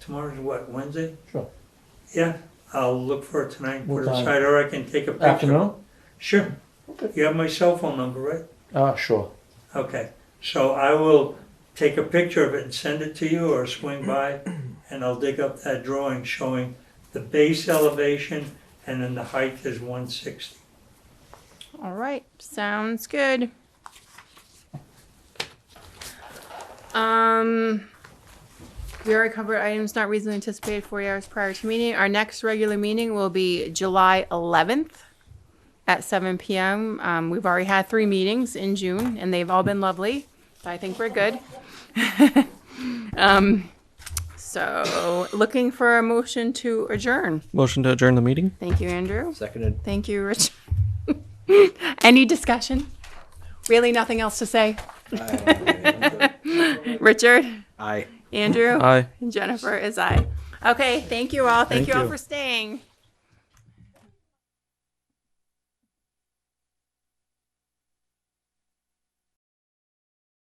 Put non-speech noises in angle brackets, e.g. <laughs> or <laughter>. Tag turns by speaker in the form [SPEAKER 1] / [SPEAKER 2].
[SPEAKER 1] Tomorrow's what, Wednesday?
[SPEAKER 2] Sure.
[SPEAKER 1] Yeah, I'll look for it tonight, and
[SPEAKER 2] What
[SPEAKER 1] put it
[SPEAKER 2] time?
[SPEAKER 1] aside, or I can take a picture.
[SPEAKER 2] Afternoon?
[SPEAKER 1] Sure.
[SPEAKER 2] Okay.
[SPEAKER 1] You have my cell phone number, right?
[SPEAKER 2] Uh, sure.
[SPEAKER 1] Okay, so I will take a picture of it and send it to you, or
[SPEAKER 2] <clears throat>
[SPEAKER 1] swing by, and I'll dig up that drawing showing the base elevation, and then the height is one sixty.
[SPEAKER 3] All right, sounds good. Um, we already covered items not reasonably anticipated 40 hours prior to meeting. Our next regular meeting will be July 11th at 7 p.m. Um, we've already had three meetings in June, and they've all been lovely. So I think we're good. <laughs> um, so, looking for a motion to adjourn.
[SPEAKER 4] Motion to adjourn the meeting?
[SPEAKER 3] Thank you, Andrew.
[SPEAKER 5] Seconded.
[SPEAKER 3] Thank you, Rich. <laughs> Any discussion? Really, nothing else to say? Richard,
[SPEAKER 5] Aye.
[SPEAKER 3] Andrew,
[SPEAKER 4] Aye.
[SPEAKER 3] and Jennifer is I. Okay, thank you all. Thank you all for staying.